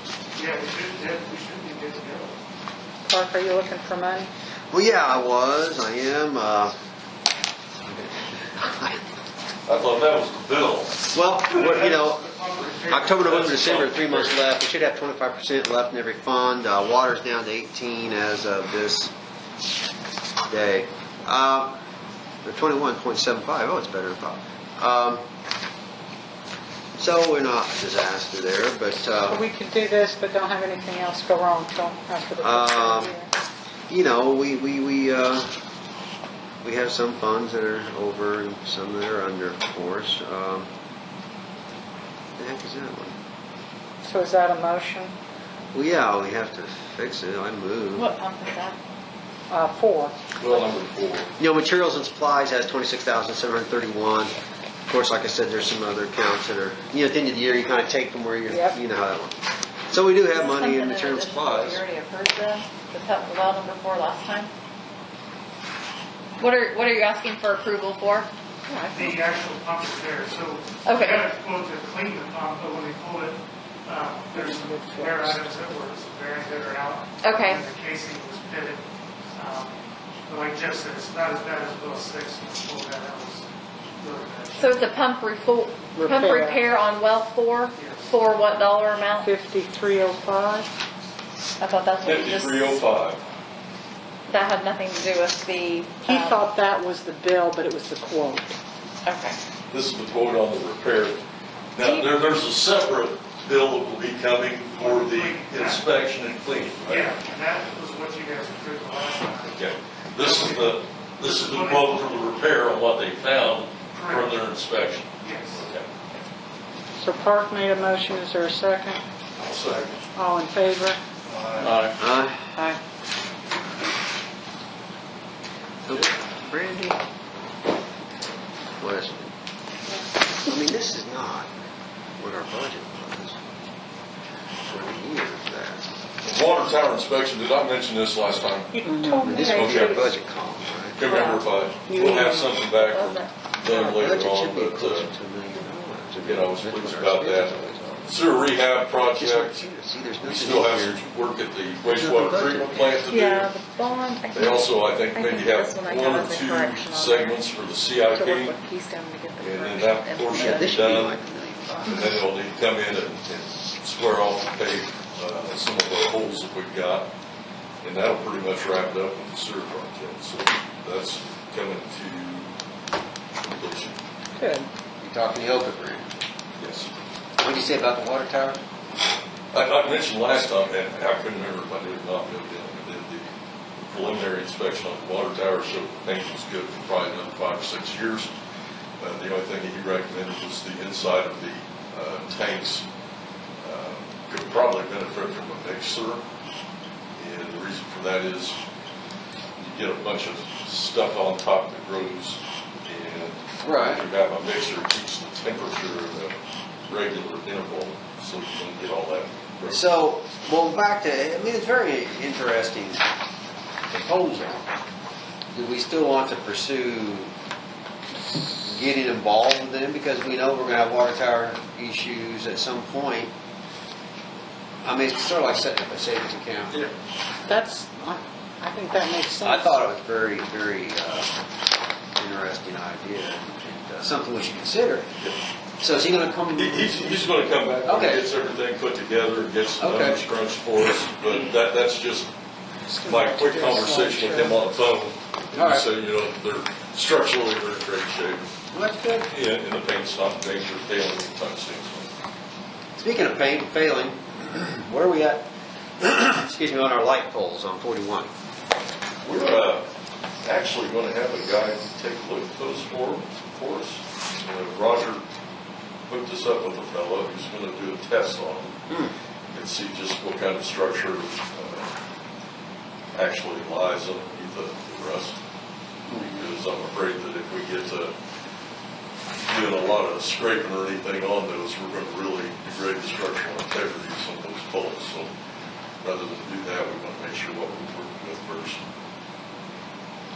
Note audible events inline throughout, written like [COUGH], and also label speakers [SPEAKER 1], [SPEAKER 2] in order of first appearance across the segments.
[SPEAKER 1] we should, that, we should be good to go.
[SPEAKER 2] Clark, are you looking for money?
[SPEAKER 3] Well, yeah, I was, I am, uh,
[SPEAKER 4] I thought that was the bill.
[SPEAKER 3] well, what- you know, October, November,
[SPEAKER 4] That's
[SPEAKER 3] December,
[SPEAKER 4] the
[SPEAKER 3] three months left, we should have twenty-five percent left in every fund, uh, water's down to eighteen as of this day. Um, or twenty-one point seven five. Oh, it's better than five. Um, so we're not a disaster there, but, uh,
[SPEAKER 2] We could do this, but don't have anything else go wrong till after the first of
[SPEAKER 3] Um,
[SPEAKER 2] the year.
[SPEAKER 3] you know, we, we, we, uh, we have some funds that are over and some that are under, of course. Um, the heck is that one?
[SPEAKER 2] So is that a motion?
[SPEAKER 3] Well, yeah, we have to fix it. I move.
[SPEAKER 5] What pump is that?
[SPEAKER 2] Uh, four.
[SPEAKER 4] Bill number four.
[SPEAKER 3] You know, materials and supplies has twenty-six thousand seven hundred thirty-one. Of course, like I said, there's some other accounts that are, you know, at the end of the year, you kind of take from where you're,
[SPEAKER 2] Yep.
[SPEAKER 3] you know how that one. So we do have money
[SPEAKER 5] Something
[SPEAKER 3] in material and
[SPEAKER 5] addition to what
[SPEAKER 3] supplies.
[SPEAKER 5] We already approved the, the pump, the well number four last time.
[SPEAKER 6] What are, what are you asking for approval for?
[SPEAKER 1] The actual pump is there, so. They
[SPEAKER 6] Okay.
[SPEAKER 1] had quote to clean the pump, but when they pulled it, uh, there's some wear items that were, some bearings that are out.
[SPEAKER 6] Okay.
[SPEAKER 1] And the casing was pitted. Um, But like Jeff said, it's not as bad as Bill Six, when we pulled that, that was really bad.
[SPEAKER 6] So it's a pump refo, pump
[SPEAKER 2] Repair.
[SPEAKER 6] repair on well four,
[SPEAKER 1] Yes.
[SPEAKER 6] for what dollar amount?
[SPEAKER 2] Fifty-three oh five?
[SPEAKER 5] I thought that's what you just,
[SPEAKER 4] Fifty-three oh five.
[SPEAKER 6] That had nothing to do with the.
[SPEAKER 2] He
[SPEAKER 6] um,
[SPEAKER 2] thought that was the bill, but it was the quote.
[SPEAKER 6] Okay.
[SPEAKER 4] This is the quote on the repair. Now, there, there's a separate bill that will be coming for the inspection and cleaning. right?
[SPEAKER 1] Yeah, and that was what you guys approved the last time.
[SPEAKER 4] Okay. This is the, this is the quote for the repair on what they found from their inspection.
[SPEAKER 1] Yes.
[SPEAKER 4] Okay.
[SPEAKER 2] So Park made a motion, is there a second?
[SPEAKER 4] Second.
[SPEAKER 2] All in favor?
[SPEAKER 4] Aye.
[SPEAKER 3] Uh,
[SPEAKER 2] Aye.
[SPEAKER 3] Brandy? What is it? I mean, this is not what our budget was for the year of that.
[SPEAKER 7] Water tower inspection, did I mention this last time?
[SPEAKER 2] You told me
[SPEAKER 3] This
[SPEAKER 2] that
[SPEAKER 3] was our
[SPEAKER 2] you-
[SPEAKER 3] budget column, right?
[SPEAKER 7] Can't remember if I, we'll have something back from them
[SPEAKER 3] Budget
[SPEAKER 7] later
[SPEAKER 3] should
[SPEAKER 7] on,
[SPEAKER 3] be
[SPEAKER 7] but,
[SPEAKER 3] closer
[SPEAKER 7] uh,
[SPEAKER 3] to a million dollars.
[SPEAKER 7] you know, I was pleased about that. Sewer
[SPEAKER 3] Just like
[SPEAKER 7] rehab project,
[SPEAKER 3] you, see, there's
[SPEAKER 7] we
[SPEAKER 3] nothing
[SPEAKER 7] still have
[SPEAKER 3] here.
[SPEAKER 7] some work at the wastewater treatment plant to
[SPEAKER 5] yeah,
[SPEAKER 7] do.
[SPEAKER 5] the bond. I
[SPEAKER 7] They
[SPEAKER 5] think-
[SPEAKER 7] also, I think,
[SPEAKER 5] I
[SPEAKER 7] maybe
[SPEAKER 5] think
[SPEAKER 7] have
[SPEAKER 5] this one I
[SPEAKER 7] one
[SPEAKER 5] got
[SPEAKER 7] or
[SPEAKER 5] as a correction
[SPEAKER 7] two
[SPEAKER 5] on
[SPEAKER 7] segments for the
[SPEAKER 5] there. To work
[SPEAKER 7] CIP,
[SPEAKER 5] with Keystone to get the correction.
[SPEAKER 7] And then that
[SPEAKER 5] and
[SPEAKER 7] portion
[SPEAKER 3] Yeah,
[SPEAKER 5] the-
[SPEAKER 3] this should be like a million
[SPEAKER 7] and
[SPEAKER 3] bucks.
[SPEAKER 7] then it'll need to come in and and square off and pave, uh, some of the holes that we've got. And that'll pretty much wrap it up with the sewer project, so that's coming to completion.
[SPEAKER 2] Good.
[SPEAKER 3] You talking to Yoga Brandy?
[SPEAKER 7] Yes.
[SPEAKER 3] What'd you say about the water tower?
[SPEAKER 7] I, I mentioned last time, and I couldn't remember if I did or not, but I did the preliminary inspection on the water tower, so things was good for probably another five or six years. Uh, the only thing that he recommended was the inside of the, uh, tanks, uh, could probably benefit from a mixer. And the reason for that is you get a bunch of stuff on top that grows and
[SPEAKER 3] Right.
[SPEAKER 7] if you have a mixer, it keeps the temperature at a regular interval, so you don't get all that.
[SPEAKER 3] So, well, back to, I mean, it's very interesting proposal. Do we still want to pursue getting involved with them because we know we're gonna have water tower issues at some point? I mean, it's sort of like setting up a savings account.
[SPEAKER 7] Yeah.
[SPEAKER 2] That's, I I think that makes
[SPEAKER 3] I
[SPEAKER 2] sense.
[SPEAKER 3] thought it was very, very, uh, interesting idea and uh, something we should consider. So is he gonna come?
[SPEAKER 7] He- He's, he's gonna come back, when he
[SPEAKER 3] Okay.
[SPEAKER 7] gets everything put together, and gets the
[SPEAKER 3] Okay.
[SPEAKER 7] numbers crunched for us, but that, that's just my quick conversation with him on the
[SPEAKER 3] All
[SPEAKER 7] phone.
[SPEAKER 3] right.
[SPEAKER 7] So, you know, they're structurally, they're in great shape,
[SPEAKER 3] That's good.
[SPEAKER 7] and, and the paint's not major failing anytime soon.
[SPEAKER 3] Speaking of paint failing, where are we at? [CLEARS THROAT] Excuse me, on our light poles on 41.
[SPEAKER 7] We're, uh, actually gonna have a guy take a look at those for, for us. Uh, Roger hooked us up with a fellow who's gonna do a test on them and see just what kind of structure, uh, actually lies underneath the the rust. Because I'm afraid that if we get to doing a lot of scraping or anything on those, we're gonna really degrade the structural integrity of some of those poles. So rather than do that, we wanna make sure what we're working with first.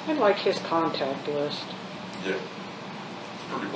[SPEAKER 2] I'd like his contact list.
[SPEAKER 7] Yeah. It's pretty